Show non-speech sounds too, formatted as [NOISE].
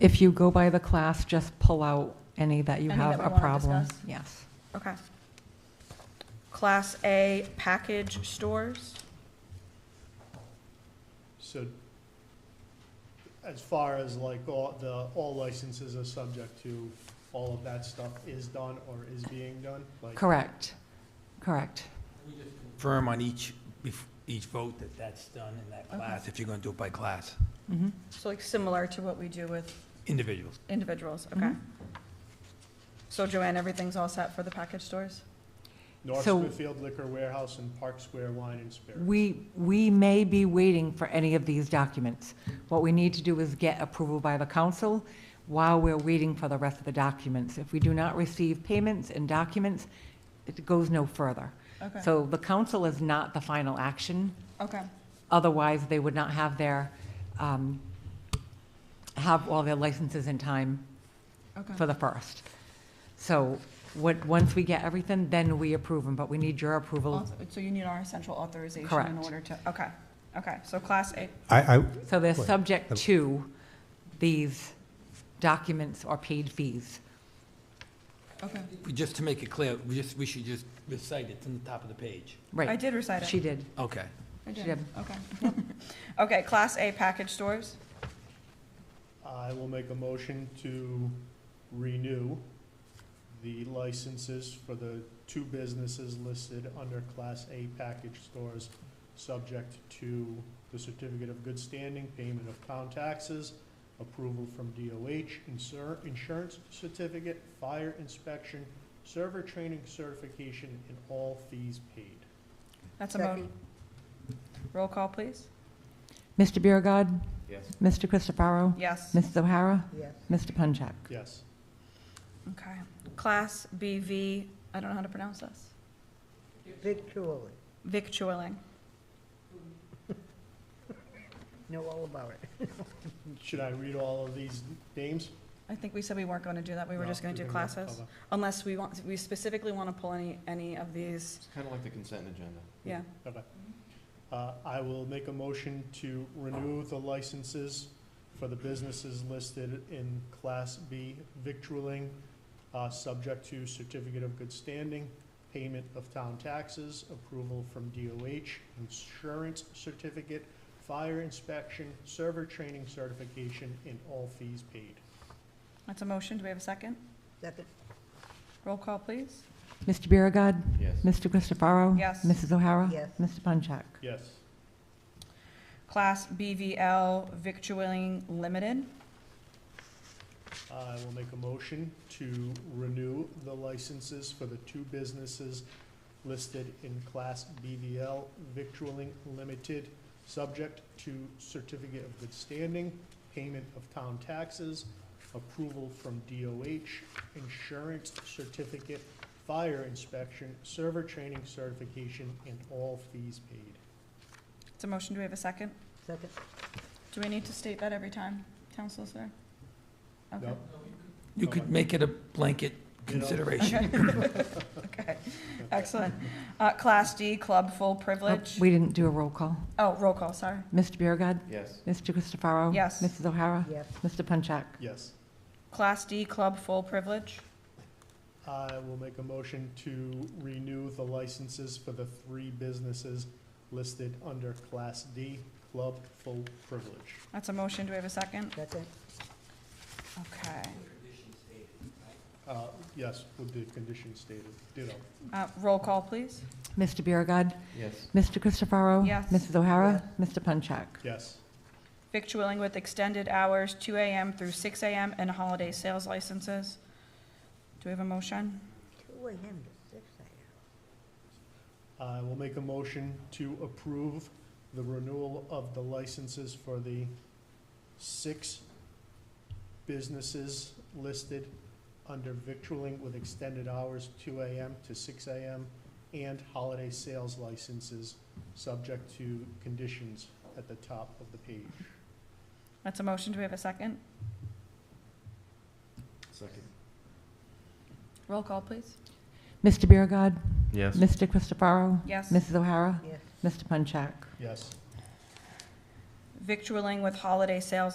if you go by the class, just pull out any that you Any have that we a wanna problem. discuss? Yes. Okay. Class A package stores? So as far as like all, the, all licenses are subject to, all of that stuff is done or is being done? Like, Correct, correct. Firm on each, bef- each vote that that's done in that class, if you're going to do it by class, Mhm. So like similar to what we do with individuals. individuals, okay? Mm-hmm. So Joanne, everything's all set for the package stores? North So- Smithfield Liquor Warehouse and Park Square Wine and Spirits. We, we may be waiting for any of these documents. What we need to do is get approval by the council while we're waiting for the rest of the documents. If we do not receive payments and documents, it goes no further. Okay, So the council is not the final action. okay, Otherwise, they would not have their, um, have all their licenses in time for okay. the first. So what, once we get everything, then we approve them, but we need your approval. Auth- So you need our essential authorization in Correct. order to, okay, okay, so class A, I, I, So they're Right. subject to these documents or paid fees. okay. We- Just to make it clear, we just, we should just recite it from the top of the page. I Right, did recite it. she did. Okay. I she did, okay. [LAUGHS] Okay, class A package stores? I will make a motion to renew the licenses for the two businesses listed under Class A package stores, subject to the certificate of good standing, payment of town taxes, approval from DOH, insur- insurance certificate, fire inspection, server training certification, and all fees paid. That's a mo, roll call, please? Mr. Biragad, Yes. Mr. Christopherow, Yes. Mrs. O'Hara, Yes. Mr. Punchak. Yes. Okay. Class BV, I don't know how to pronounce this. Victually. Victualling. Know all about it. Should I read all of these names? I think we said we weren't going to do that. We were No, just going to you're do gonna- classes. okay. Unless we want, we specifically want to pull any, any of these. It's kind of like the consent agenda. Yeah. Uh, I will make a motion to renew the licenses for the businesses listed in Class B victualling, uh, subject to certificate of good standing, payment of town taxes, approval from DOH, insurance certificate, fire inspection, server training certification, and all fees paid. That's a motion. Do we have a second? Second, Roll call, please. Mr. Biragad, Yes. Mr. Christopherow. Yes. Mrs. O'Hara. Yes. Mr. Punchak. Yes. Class BVL Victualling Limited. I will make a motion to renew the licenses for the two businesses listed in Class BVL Victualling Limited, subject to certificate of good standing, payment of town taxes, approval from DOH, insurance certificate, fire inspection, server training certification, and all fees paid. It's a motion. Do we have a second? second, Do we need to state that every time, Town Solicitor? Okay. No? You could make it a blanket consideration. Okay. Excellent. Uh, Class D Club Full Oh, Privilege. We didn't do a roll call. Oh, roll call, sorry. Mr. Biragad, Yes. Mr. Christopherow. Yes. Mrs. O'Hara. yes, Mr. Punchak. Yes. Class D Club Full Privilege. I will make a motion to renew the licenses for the three businesses listed under Class D Club Full Privilege. That's a motion. Do we have a second? second, Okay. Uh, Yes, with the condition stated, ditto. Uh, Roll call, please. Mr. Biragad, Yes. Mr. Christopherow. Yes. Mrs. O'Hara. Mr. Punchak. Yes. Victualling with extended hours, 2 AM through 6 AM, and holiday sales licenses. Do we have a motion? two AM to six AM. I will make a motion to approve the renewal of the licenses for the six businesses listed under victualling with extended hours, two AM to six AM, and holiday sales licenses, subject to conditions at the top of the page. That's a motion. Do we have a second? Second. Roll call, please. Mr. Biragad, Yes. Mr. Christopherow. Yes. Mrs. O'Hara. Yes. Mr. Punchak. Yes. Victualling with holiday sales